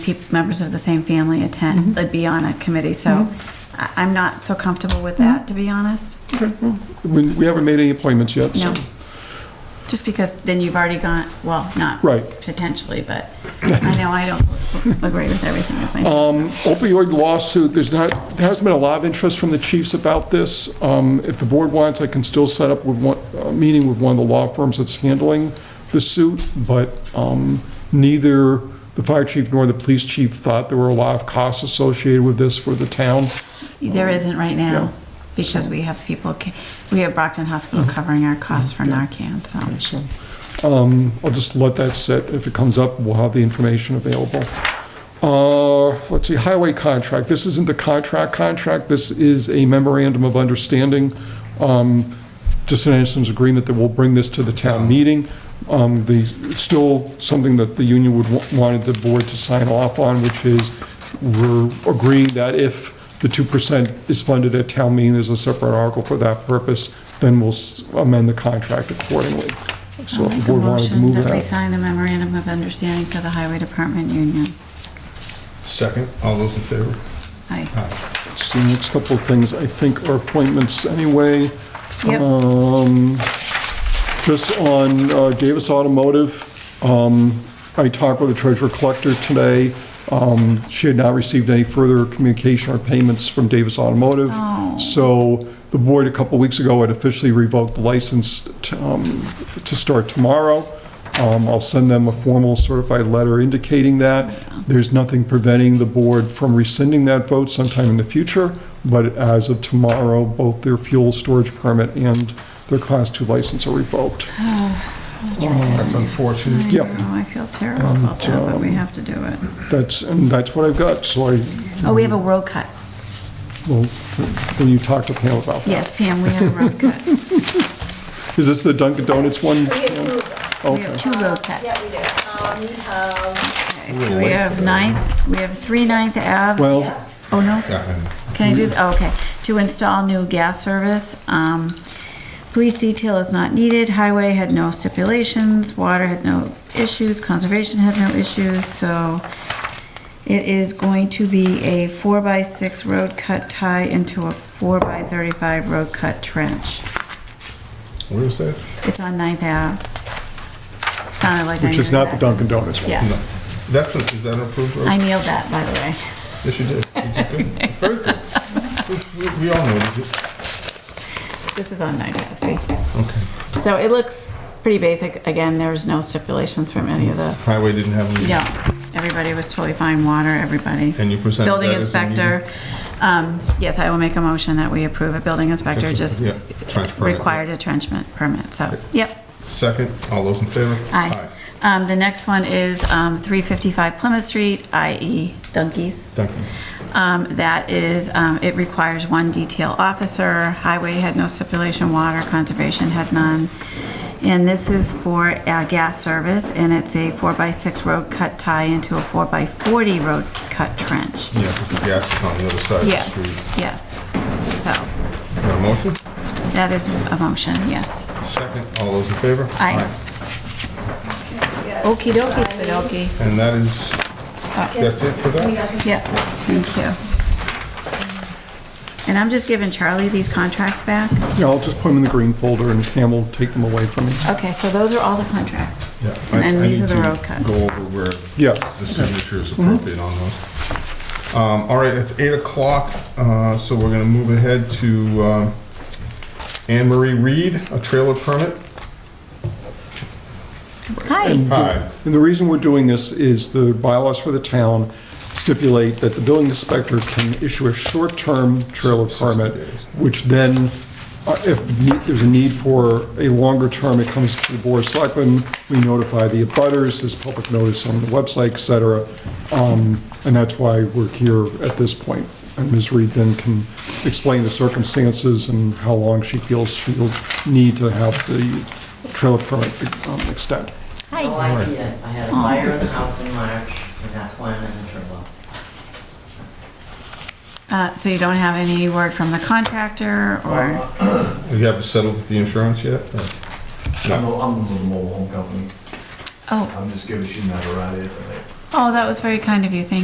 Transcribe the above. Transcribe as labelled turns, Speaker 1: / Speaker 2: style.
Speaker 1: peop members of the same family
Speaker 2: Mm-hmm.
Speaker 1: attend, like, be on a committee, so I- I'm not so comfortable with
Speaker 2: Mm-hmm.
Speaker 1: that, to be honest.
Speaker 2: Okay, well, We we haven't made any appointments yet, so.
Speaker 1: No. Just because then you've already gone, well, not
Speaker 2: Right.
Speaker 1: potentially, but I know I don't agree with everything with my,
Speaker 2: Um, Opioid lawsuit, there's not, there hasn't been a lot of interest from the chiefs about this. Um, If the board wants, I can still set up with one, a meeting with one of the law firms that's handling the suit, but um, neither the fire chief nor the police chief thought there were a lot of costs associated with this for the town.
Speaker 1: there isn't right
Speaker 2: Yeah.
Speaker 1: now, because we have people, ca- we have Brockton Hospital
Speaker 2: Mm-hmm.
Speaker 1: covering our costs for Narcan, so.
Speaker 2: So, um, I'll just let that sit. If it comes up, we'll have the information available. Uh, let's see, highway contract. This isn't the contract contract. This is a memorandum of understanding. Um, just an instance agreement that will bring this to the town meeting. Um, the, still something that the union would, wa- wanted the board to sign off on, which is we're agreeing that if the 2% is funded at town meeting, there's a separate article for that purpose, then we'll s- amend the contract accordingly. So
Speaker 1: I'll
Speaker 2: if
Speaker 1: make a
Speaker 2: the board wanted to
Speaker 1: motion
Speaker 2: move
Speaker 1: that we
Speaker 2: that.
Speaker 1: sign the memorandum of understanding for the highway department union.
Speaker 3: Second, all those in favor?
Speaker 1: I,
Speaker 2: So the next couple of things, I think, are appointments anyway. Uh,
Speaker 1: yep,
Speaker 2: Um, Just on uh, Davis Automotive, um, I talked with the treasurer collector today. Um, She had not received any further communication or payments from Davis Automotive. So the board a couple weeks ago had officially revoked the license to um, to start tomorrow. Um, I'll send them a formal certified letter indicating that. There's nothing preventing the board from rescinding that vote sometime in the future, but as of tomorrow, both their fuel storage permit and their Class 2 license are revoked.
Speaker 1: Oh,
Speaker 3: That's unfortunate.
Speaker 1: I
Speaker 2: Yep.
Speaker 1: know, Oh, I feel terrible
Speaker 2: Um,
Speaker 1: about that, but we have to do it.
Speaker 2: That's, and that's what I've got, so I,
Speaker 1: Oh, we have a road cut.
Speaker 2: well, when you talk to Pam about that.
Speaker 1: Yes, Pam, we have a road cut.
Speaker 2: Is this the Dunkin' Donuts one? Oh,
Speaker 4: We have two of them.
Speaker 1: We have two road cuts.
Speaker 4: Yeah, we do. Um, we have,
Speaker 1: Okay, So we have Ninth, we have three Ninth Ave.
Speaker 2: Well-
Speaker 1: to- Oh, no?
Speaker 3: Yeah, and-
Speaker 1: Can I do, th- oh, okay. To install new gas service. Um, Police detail is not needed. Highway had no stipulations. Water had no issues. Conservation had no issues. So it is going to be a four by six road cut tie into a four by thirty-five road cut trench.
Speaker 3: Where is that?
Speaker 1: It's on Ninth Ave. Sounded like I
Speaker 2: Which is
Speaker 1: knew
Speaker 2: not the
Speaker 1: that.
Speaker 2: Dunkin' Donuts one.
Speaker 1: Yeah.
Speaker 3: No. That's, a- is that an approved road?
Speaker 1: I nailed that, by the way.
Speaker 3: Yes, you did. You did good. Very good. We- We we all know you did.
Speaker 1: This is on Ninth Ave, see?
Speaker 3: Okay.
Speaker 1: So it looks pretty basic. Again, there's no stipulations from any of the,
Speaker 3: Highway didn't have any.
Speaker 1: yeah. Everybody was totally fine, water, everybody.
Speaker 3: And you presented that
Speaker 1: Building
Speaker 3: as a meeting?
Speaker 1: inspector, um, yes, I will make a motion that we approve a building inspector
Speaker 3: Okay,
Speaker 1: just
Speaker 3: yeah, trench permit.
Speaker 1: required a trenchment permit, so, yep.
Speaker 3: Second, all those in favor?
Speaker 1: Aye. Um, the next one is, um, three fifty-five Plymouth Street, i.e. Dunkies.
Speaker 3: Duncan's.
Speaker 1: Um, That is, um, it requires one detail officer. Highway had no stipulation, water conservation had none. And this is for uh, gas service, and it's a four-by-six road cut tie into a four-by-40 road cut trench.
Speaker 3: Yeah, because the gas is on the other side of the street.
Speaker 1: Yes, yes. So
Speaker 3: Got a motion?
Speaker 1: that is a motion, yes.
Speaker 3: Second, all those in favor?
Speaker 1: Aye. Okey dokey,
Speaker 3: Aye.
Speaker 1: Spidokie.
Speaker 3: And that is, that's it for
Speaker 4: we
Speaker 3: that?
Speaker 4: have
Speaker 1: Yeah, thank you. And I'm just giving Charlie these contracts back.
Speaker 2: Yeah, I'll just put them in the green folder and Pam will take them away from me.
Speaker 1: Okay, so those are all the contracts.
Speaker 3: Yeah. I-
Speaker 1: And then
Speaker 3: I
Speaker 1: these
Speaker 3: need
Speaker 1: are the
Speaker 3: to
Speaker 1: road cuts. Mm-hmm.
Speaker 3: Go over where
Speaker 2: Yeah.
Speaker 3: the signature is appropriate on those. Um, All right, it's 8 o'clock, uh, so we're going to move ahead to um, Anne Marie Reed, a trailer permit.
Speaker 1: Hi.
Speaker 3: Hi.
Speaker 2: And the reason we're doing this is the bylaws for the town stipulate that the building inspector can issue a short-term trailer
Speaker 3: Sixty
Speaker 2: permit,
Speaker 3: days.
Speaker 2: which then, uh, if ne- there's a need for a longer term, it comes to the board of selectmen, we notify the abutters, there's public notice on the website, et cetera. Um, And that's why we're here at this point. And Ms. Reed then can explain the circumstances and how long she feels she'll need to have the trailer permit um, extend.
Speaker 5: No idea. I had a fire in the house in March, and that's why I'm in the trouble.
Speaker 1: Uh, So you don't have any word from the contractor or,
Speaker 3: You haven't settled with the insurance yet? or-
Speaker 6: I'm a, I'm a mobile home company.
Speaker 1: oh,
Speaker 6: I'm just giving you that right here today.
Speaker 1: Oh, that was very kind of you, thank